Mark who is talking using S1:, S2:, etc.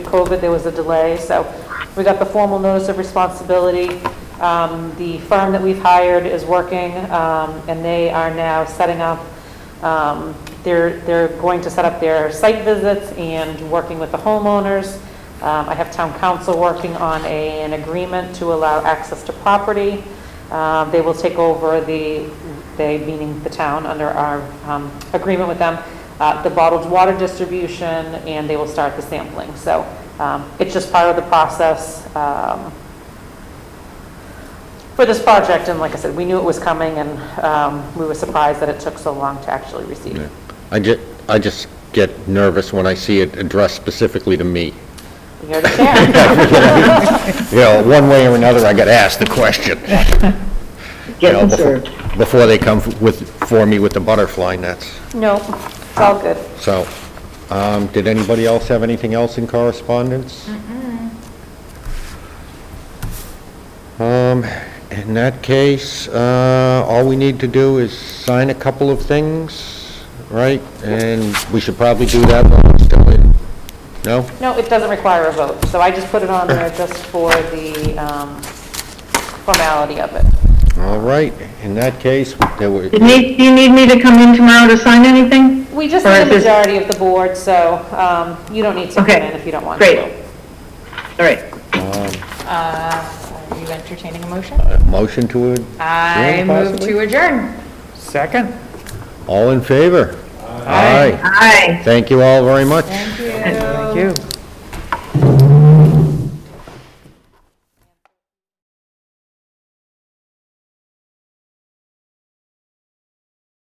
S1: COVID, there was a delay, so we got the formal notice of responsibility. Um, The firm that we've hired is working, um, and they are now setting up, um, they're, they're going to set up their site visits and working with the homeowners. Um, I have town council working on a- an agreement to allow access to property. Uh, They will take over the, they, meaning the town, under our um, agreement with them, uh, the bottled water distribution, and they will start the sampling. So um, it's just part of the process um, for this project. And like I said, we knew it was coming, and um, we were surprised that it took so long to actually receive. it.
S2: I just, I just get nervous when I see it addressed specifically to me.
S1: You're the chair.
S2: You know, one way or another, I got asked the question. you
S3: Get
S2: know,
S3: them
S2: before-
S3: served.
S2: Before they come with, for me with the butterfly nets.
S1: No, it's all good.
S2: So, um, did anybody else have anything else in correspondence? Um, in that case, uh, all we need to do is sign a couple of things, right? And we should probably do that while it's still in, no?
S1: No, it doesn't require a vote, so I just put it on there just for the um, formality of it.
S2: All right, in that case, there were,
S3: Do you need, do you need me to come in tomorrow to sign anything?
S1: We just
S3: Or
S1: need a
S3: is this-
S1: majority of the board, so um, you don't need to come
S3: Okay,
S1: in if you don't want to.
S3: Great. All right.
S4: Uh, Are you entertaining a motion?
S2: a uh, motion to adjourn
S4: I move
S2: possibly?
S4: to adjourn.
S5: Second?
S2: All in favor? Aye.
S3: Aye.
S2: Thank you all very much.
S4: Thank you.
S5: Thank you.